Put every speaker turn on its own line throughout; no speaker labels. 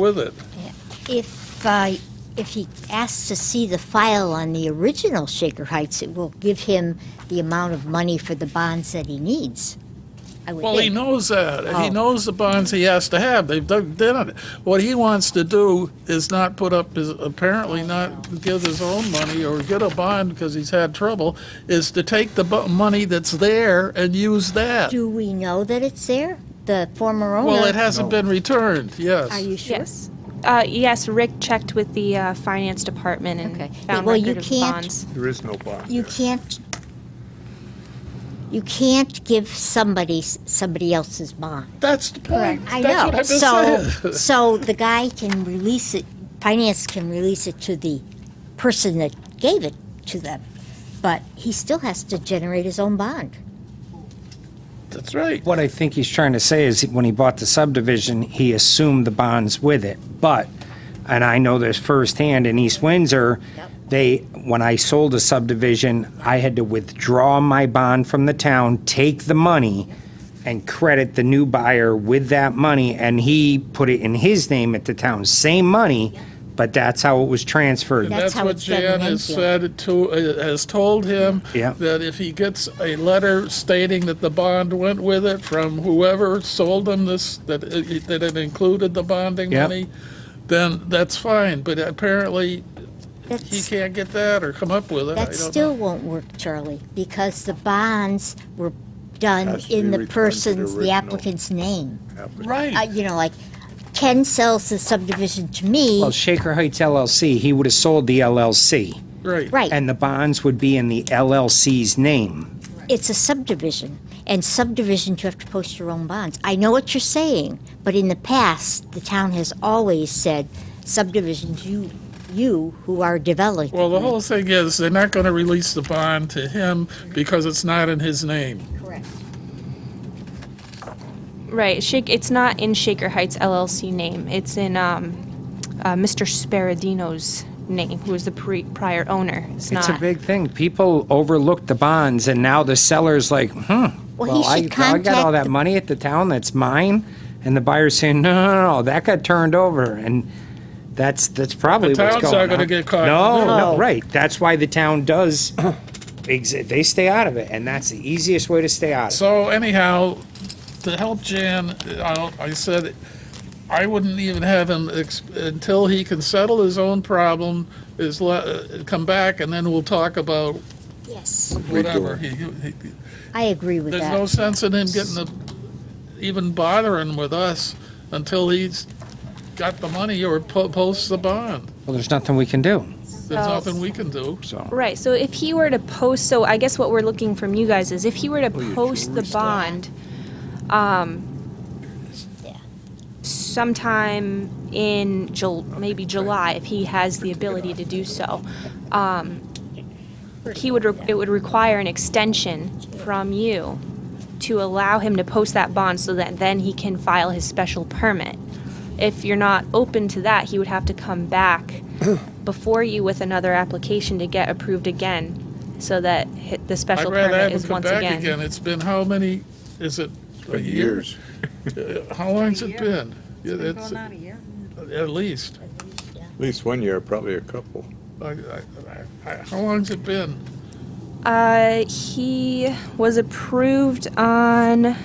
with it.
If, uh, if he asks to see the file on the original Shaker Heights, it will give him the amount of money for the bonds that he needs. I would
Well, he
think.
knows that.
Oh.
He knows the bonds he has to have. They've done, done it. What he wants to do is not put up his, apparently not give his own money or get a bond because he's had trouble, is to take the bu- money that's there and use that.
Do we know that it's there? The former owner?
Well, it hasn't been returned, yes.
Are you sure?
Yes. Uh, yes, Rick checked with the uh, finance department and
Okay.
found
Well,
record
you
of
can't-
bonds.
There is no bond
You
there.
can't, you can't give somebody, s- somebody else's bond.
That's the point.
I
That's
know.
what I've been
So,
saying.
so the guy can release it, finance can release it to the person that gave it to them, but he still has to generate his own bond.
That's right.
What I think he's trying to say is when he bought the subdivision, he assumed the bonds with it. But, and I know this firsthand in East Windsor,
Yep.
they, when I sold a subdivision, I had to withdraw my bond from the town, take the money, and credit the new buyer with that money. And he put it in his name at the town, same money, but that's how it was transferred.
And
That's
that's
how
what
it's been in
Jan has
Enfield.
said to, uh, has told him.
Yeah.
That if he gets a letter stating that the bond went with it from whoever sold him this, that it, that it included the bonding
Yeah.
money, then that's fine, but apparently he
That's,
can't get that or come up with it. I
that
don't know.
still won't work, Charlie, because the bonds were done
Has to
in
be
the
returned to the
person's, the
original.
applicant's name. Uh,
Right,
you know, like, Ken sells the subdivision to me,
Oh,
Well, Shaker Heights LLC, he would have sold the LLC,
right.
right,
and the bonds would be in the LLC's name.
it's a subdivision, and subdivisions you have to post your own bonds. I know what you're saying, but in the past, the town has always said subdivisions you you who are developing.
Well, the whole thing is, they're not gonna release the bond to him because it's not in his name.
correct.
Right. Shake. It's not in Shaker Heights LLC name. It's in um, uh, Mr. Sparadino's name, who was the pre- prior owner. It's,
It's
not.
a big thing. People overlook the bonds, and now the seller's like, hmm.
Well, he
I,
should
I got all
contact
that
the-
money at the town that's mine, and the buyer's saying, no, no, no, no, that got turned over, and that's that's probably
The
what's
town's
going
not gonna
on.
get caught.
No,
No.
no, right. That's why the town does. Exi- they stay out of it, and that's the easiest way to stay out of it.
So anyhow, to help Jan, I, I said, I wouldn't even have him, ex- until he can settle his own problem, is le, uh, come back and then we'll talk about
Yes,
whatever. He, he-
I agree with
there's
that.
no sense in him getting the, even bothering with us until he's got the money or po- posts the bond.
Well, there's nothing we can do.
There's nothing we can do.
So
Right. So if he were to post, so I guess what we're looking from you guys is if he were to
Oh,
post the bond,
Yeah.
um, sometime in Jul, maybe July, if he has the ability to do so, um, he would, re- it would require an extension from you to allow him to post that bond so that then he can file his special permit. If you're not open to that, he would have to come back before you with another application to get approved again, so that hi- the
I'd
special
rather have
permit
him
is
come
once
back
again.
again. It's been how many, is it a year?
Years.
Uh, How long's it been?
Been
It's
going on a year.
at least.
At least one year, probably a couple.
I- I- I- I- How long's it been?
Uh, he was approved on.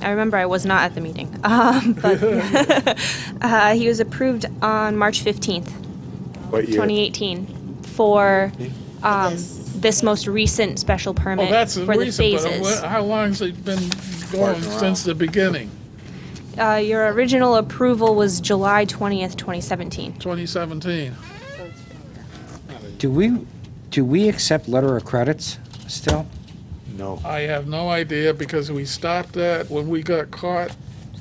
I remember I was not at the meeting, um, but uh, he was approved on March fifteenth.
What year?
2018 for um, this most recent special
Well,
permit
Oh, that's the
for the
reason, but uh,
phases.
wha- how long's it been going
Farting around.
since the beginning,
Uh, your original approval was July 20th, 2017.
2017?
do we? Do we accept letter of credits still?
No.
I have no idea, because we stopped that when we got caught.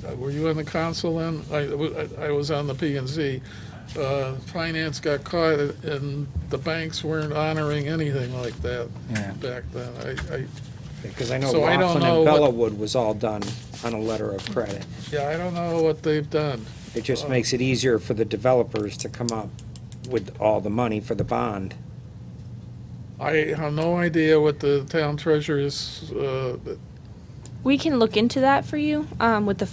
Uh, Were you on the council then? I, w- I- I was on the P and Z. Uh, Finance got caught, and the banks weren't honoring anything like that
Yeah.
back then. I, I,
Because I know
So I don't
Laughlin
know
and
what-
Bellawood was all done on a letter of credit.
yeah, I don't know what they've done.
It just makes it easier for the developers to come up with all the money for the bond.
I have no idea what the town treasurer's, uh,
We can look into that for you um, with the